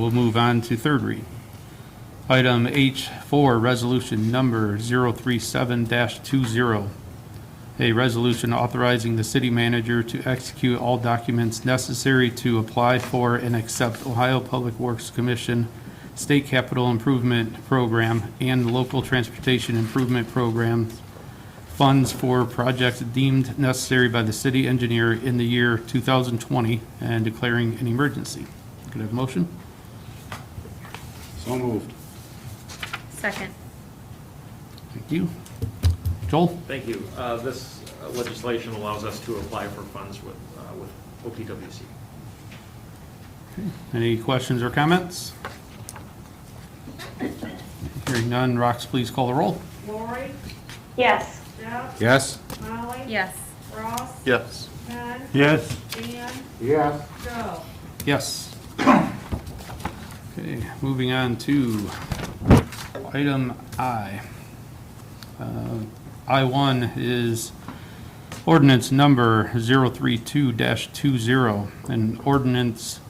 We'll move on to third read. Item H4, Resolution Number 037-20, a resolution authorizing the city manager to execute all documents necessary to apply for and accept Ohio Public Works Commission State Capital Improvement Program and Local Transportation Improvement Program funds for projects deemed necessary by the city engineer in the year 2020 and declaring an emergency. Could I have a motion? So moved. Second. Thank you. Joel? Thank you. Uh, This legislation allows us to apply for funds with, uh, with OPWC. Any questions or comments? Hearing none, Rox, please call the roll. Lori, Yes. Jeff, Yes. Molly. Yes. Ross, Yes. Ken, Yes. Dan, Yes. Joe. Yes. Okay, moving on to item I. Uh, I1 is ordinance number 032-20, an ordinance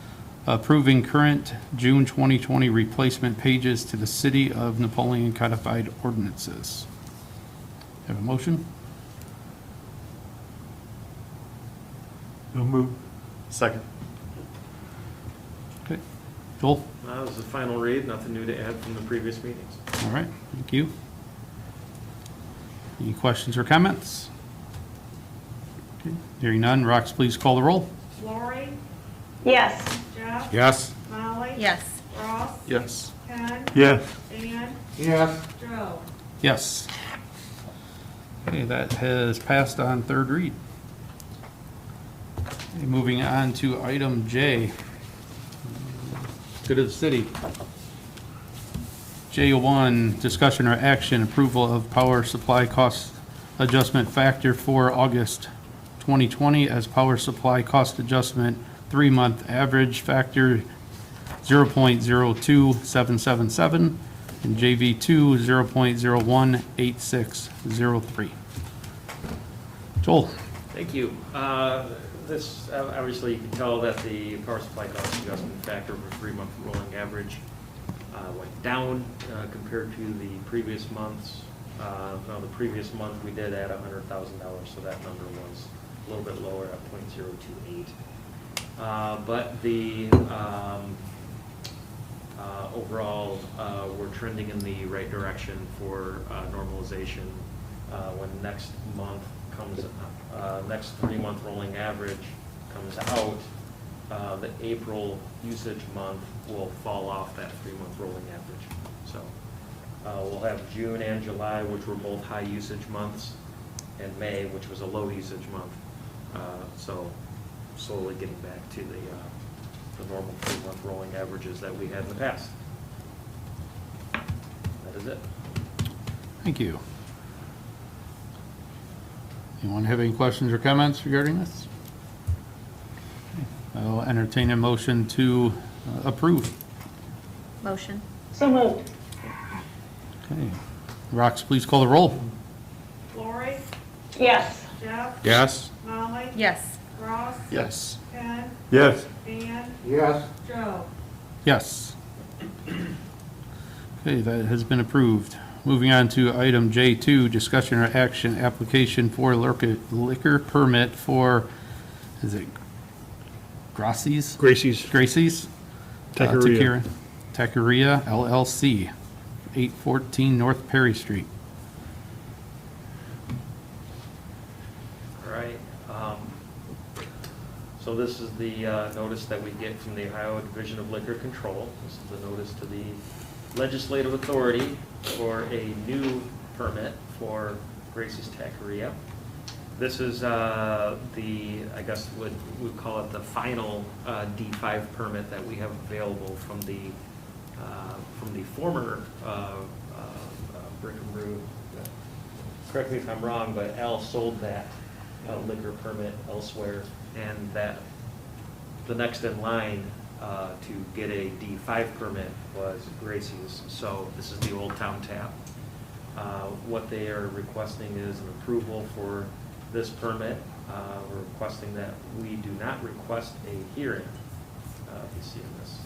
approving current June 2020 replacement pages to the City of Napoleon codified ordinances. Have a motion? So moved. Second. Okay. Joel? That was Uh, the final read, nothing new to add from the previous meetings. All right, thank you. Any questions or comments? Okay, Hearing none, Rox, please call the roll. Lori, Yes. Jeff, Yes. Molly. Yes. Ross, Yes. Ken, Yes, Dan, Yes. Joe. Yes. Okay, that has passed on third read. Okay, Moving on to item J. Good of the city. J1, discussion or action, approval of power supply cost adjustment factor for August 2020 as power supply cost adjustment three-month average factor 0.02777 and JV2 0.018603. Joel? Thank you. Uh, This, uh, obviously, you can tell that the power supply cost adjustment factor for three-month rolling average uh, went down uh, compared to the previous months. Uh, Now, the previous month, we did add $100,000, so that number was a little bit lower at .028. Uh, But the, um, uh, overall, uh, we're trending in the right direction for uh, normalization. Uh, When next month comes, uh, next three-month rolling average comes out, uh, the April usage month will fall off that three-month rolling average. So uh, we'll have June and July, which were both high usage months, and May, which was a low usage month. Uh, So slowly getting back to the uh, the normal three-month rolling averages that we had in the past. That is it. Thank you. Anyone have any questions or comments regarding this? I'll entertain a motion to uh, approve. Motion. Okay. Rox, please call the roll. Lori, Yes. Jeff, Yes. Molly. Yes. Ross, Yes. Ken, yes, Dan, Yes. Joe. Yes. Okay, that has been approved. Moving on to item J2, discussion or action, application for liquor liquor permit for, is it Gracie's? Gracie's Gracie's? Uh, Taqueria. Taqueria LLC, 814 North Perry Street. All right. um, So this is the uh, notice that we get from the Ohio Division of Liquor Control. This is the notice to the legislative authority for a new permit for Gracie's Taqueria. This is uh, the, I guess would, we'd call it the final uh, D5 permit that we have available from the, uh, from the former uh, uh, uh, Brick and Brew. Correct me if I'm wrong, but Al sold that uh, liquor permit elsewhere, and that the next in line uh, to get a D5 permit was Gracie's. So this is the Old Town Tap. Uh, What they are requesting is an approval for this permit. Uh, We're requesting that we do not request a hearing, uh, if you see in this